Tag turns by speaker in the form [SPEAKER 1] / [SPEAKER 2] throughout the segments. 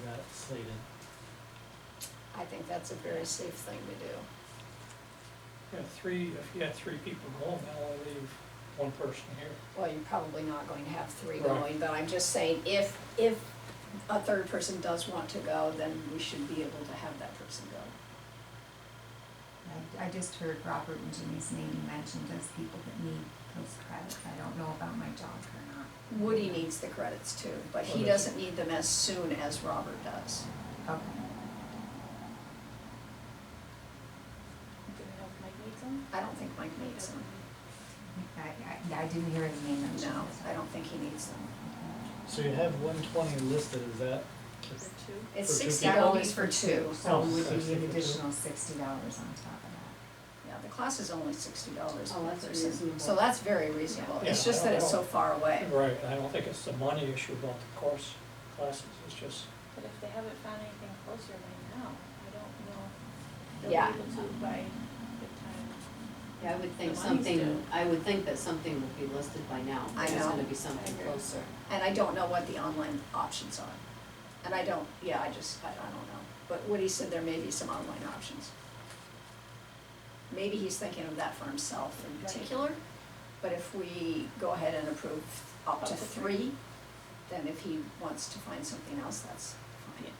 [SPEAKER 1] completed.
[SPEAKER 2] I think that's a very safe thing to do.
[SPEAKER 3] You have three, if you had three people going, now I leave one person here.
[SPEAKER 2] Well, you're probably not going to have three
[SPEAKER 3] Right.
[SPEAKER 2] going, but I'm just saying, if, if a third person does want to go, then we should be able to have that person go.
[SPEAKER 4] I, I just heard Robert and Jimmy's name mentioned as people that need those credits. I don't know about my dog or not.
[SPEAKER 2] Woody needs the credits too, but he
[SPEAKER 3] Okay.
[SPEAKER 2] doesn't need them as soon as Robert does.
[SPEAKER 4] Okay.
[SPEAKER 5] Do we know if Mike needs them?
[SPEAKER 2] I don't think Mike needs them.
[SPEAKER 4] I, I, I didn't hear his name mentioned.
[SPEAKER 2] No,
[SPEAKER 4] so-
[SPEAKER 2] I don't think he needs them.
[SPEAKER 1] So you have one twenty listed, is that,
[SPEAKER 5] For two?
[SPEAKER 2] It's
[SPEAKER 1] For two
[SPEAKER 2] sixty
[SPEAKER 1] people?
[SPEAKER 4] That
[SPEAKER 2] dollars
[SPEAKER 4] only's
[SPEAKER 2] for two.
[SPEAKER 4] so
[SPEAKER 1] Oh,
[SPEAKER 4] it would be
[SPEAKER 1] 60 for
[SPEAKER 4] an
[SPEAKER 1] two.
[SPEAKER 4] additional sixty dollars on top of that.
[SPEAKER 2] Yeah, the class is only sixty dollars per
[SPEAKER 6] Oh,
[SPEAKER 2] person.
[SPEAKER 6] that's reasonable.
[SPEAKER 2] So that's very reasonable. It's
[SPEAKER 3] Yeah,
[SPEAKER 2] just
[SPEAKER 3] I
[SPEAKER 2] that
[SPEAKER 3] don't
[SPEAKER 2] it's so
[SPEAKER 3] know.
[SPEAKER 2] far away.
[SPEAKER 3] Right, and I don't think it's the money issue about the course classes, it's just,
[SPEAKER 5] But if they haven't found anything closer by now, I don't know. if
[SPEAKER 2] Yeah.
[SPEAKER 5] They'll be able to by the time.
[SPEAKER 6] Yeah, I would think
[SPEAKER 5] The lines
[SPEAKER 6] something,
[SPEAKER 5] do.
[SPEAKER 6] I would think that something would be listed by now.
[SPEAKER 2] I
[SPEAKER 6] There's
[SPEAKER 2] know.
[SPEAKER 6] gonna be something
[SPEAKER 5] I agree.
[SPEAKER 6] closer.
[SPEAKER 2] And I don't know what the online options are. And I don't, yeah, I just, I, I don't know. But Woody said there may be some online options. Maybe he's thinking of that for himself in
[SPEAKER 5] Right.
[SPEAKER 2] particular, but if we go ahead and approve up to
[SPEAKER 5] Up to three.
[SPEAKER 2] three, then if he wants to find something else, that's fine.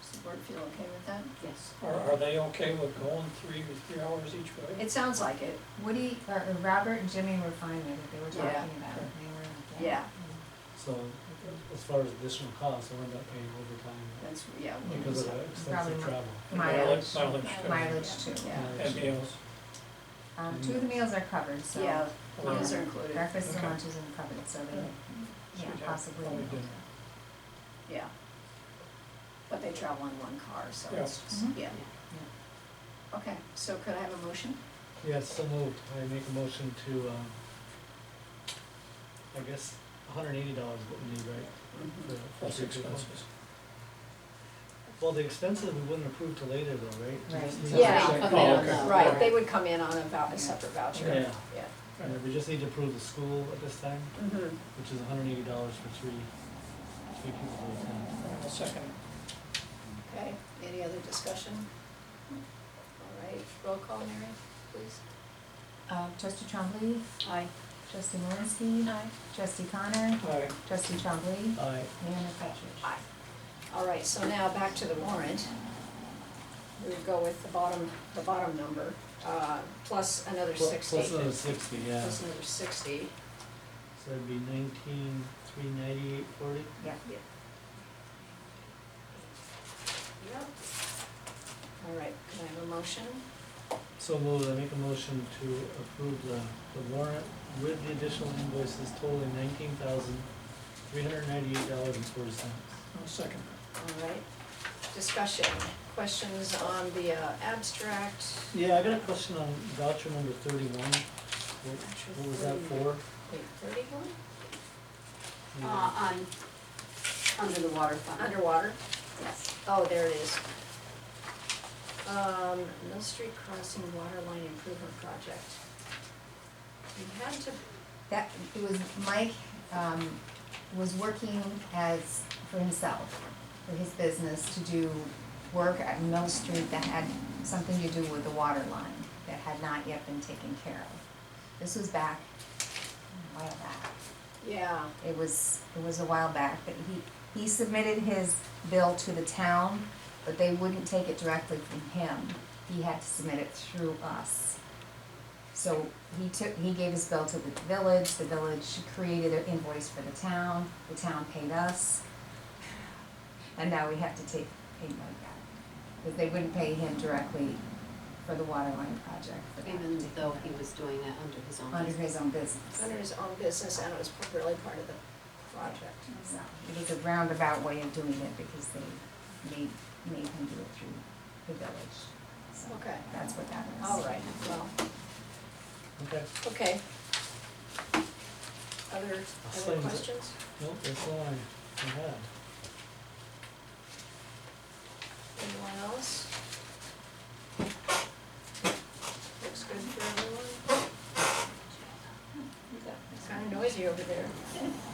[SPEAKER 2] Does the board feel okay with that?
[SPEAKER 6] Yes.
[SPEAKER 3] are, are they okay with going three, three hours each way?
[SPEAKER 2] It sounds like it,
[SPEAKER 4] Woody, or or uh, Robert and Jimmy were fine with it, they were
[SPEAKER 2] Yeah.
[SPEAKER 4] talking about it, they were like, yeah.
[SPEAKER 2] Yeah.
[SPEAKER 1] so as far as additional costs, we'll end up paying overtime
[SPEAKER 2] that's, yeah,
[SPEAKER 1] because of the extensive
[SPEAKER 4] Probably not.
[SPEAKER 1] travel. Uh,
[SPEAKER 3] Mileage,
[SPEAKER 4] Mileage,
[SPEAKER 5] Mileage.
[SPEAKER 2] Uh,
[SPEAKER 3] mileage,
[SPEAKER 4] mileage too.
[SPEAKER 2] yeah,
[SPEAKER 3] too, and meals.
[SPEAKER 4] Um, two of the meals are covered, so.
[SPEAKER 2] yeah,
[SPEAKER 3] Yeah.
[SPEAKER 2] those are included, yeah.
[SPEAKER 4] Breakfast and
[SPEAKER 3] Okay.
[SPEAKER 4] lunches are covered, so they,
[SPEAKER 3] So
[SPEAKER 4] yeah,
[SPEAKER 3] we'd have
[SPEAKER 4] possibly.
[SPEAKER 3] probably dinner.
[SPEAKER 2] But they travel in one car, so
[SPEAKER 3] Yeah.
[SPEAKER 2] it's, just- yeah. Okay, so could I have a motion?
[SPEAKER 1] Yes, so moved, I make a motion to, um, I guess, hundred and eighty dollars is what we need, right?
[SPEAKER 2] Mm-hmm.
[SPEAKER 1] for- for
[SPEAKER 3] Plus
[SPEAKER 1] three people?
[SPEAKER 3] expenses.
[SPEAKER 1] Well, the expenses we wouldn't approve till later though, right? We just
[SPEAKER 4] Right.
[SPEAKER 1] need to-
[SPEAKER 2] Yeah.
[SPEAKER 6] Come in
[SPEAKER 3] Oh,
[SPEAKER 6] on
[SPEAKER 3] okay.
[SPEAKER 6] the-
[SPEAKER 2] Right, they would come in on a vou, a separate voucher, yeah.
[SPEAKER 1] Yeah. And we just need to approve the school at this time,
[SPEAKER 2] Mm-hmm,
[SPEAKER 1] which is hundred and eighty dollars for three, three people at a time.
[SPEAKER 3] I'll uh, second.
[SPEAKER 2] okay, any other discussion? All right, roll call, Mary, please.
[SPEAKER 4] Uh, trustee Trombley,
[SPEAKER 2] Aye.
[SPEAKER 4] trustee Malinsky,
[SPEAKER 5] Aye.
[SPEAKER 4] trustee Connor,
[SPEAKER 3] Aye.
[SPEAKER 4] trustee Trombley,
[SPEAKER 1] Aye.
[SPEAKER 4] Mayor McFetrich.
[SPEAKER 2] Aye. All right, so now back to the warrant. We would go with the bottom, the bottom number, uh, plus another
[SPEAKER 1] Plus-
[SPEAKER 2] sixty.
[SPEAKER 1] Plus another sixty, yeah.
[SPEAKER 2] Plus another sixty,
[SPEAKER 1] So that'd be nineteen, three ninety-eight forty?
[SPEAKER 4] Yeah,
[SPEAKER 2] yep. All right, can I have a motion?
[SPEAKER 1] So moved, I make a motion to approve the, the warrant with the additional invoices totaling nineteen thousand, three hundred ninety-eight dollars and forty cents.
[SPEAKER 3] I'll second.
[SPEAKER 2] All right, discussion, questions on the uh, abstract?
[SPEAKER 1] Yeah, I got a question on voucher number thirty-one. What, what was that for?
[SPEAKER 2] Wait, thirty-one?
[SPEAKER 6] Uh, on, under the water fund.
[SPEAKER 2] Underwater?
[SPEAKER 6] Yes.
[SPEAKER 2] Oh, there it is. Um, Mill Street Crossing Waterline Improvement Project. We had to,
[SPEAKER 4] that, it was, Mike, um, was working as, for himself, for his business to do work at Mill Street that had something to do with the water line, that had not yet been taken care of. This was back, a while back
[SPEAKER 2] yeah,
[SPEAKER 4] it was, it was a while back, but he, he submitted his bill to the town, but they wouldn't take it directly from him. He had to submit it through us. So he took, he gave his bill to the village, the village created an invoice for the town, the town paid us. And now we have to take payment like that, because they wouldn't pay him directly for the water line project for that,
[SPEAKER 6] Even though he was doing that under his own.
[SPEAKER 4] under
[SPEAKER 6] business.
[SPEAKER 4] his own business.
[SPEAKER 2] under his own business and it was really part of the project.
[SPEAKER 4] So it was a roundabout way of doing it because they made, made him do it through the village. So
[SPEAKER 2] Okay. Oh.
[SPEAKER 4] That's what that is.
[SPEAKER 2] All right, well,
[SPEAKER 1] Okay,
[SPEAKER 2] okay. Other,
[SPEAKER 1] I'll
[SPEAKER 2] other
[SPEAKER 1] send it.
[SPEAKER 2] questions?
[SPEAKER 1] nope, that's all I, I had.
[SPEAKER 2] Anyone else? Looks good for everyone? It's kinda noisy over there.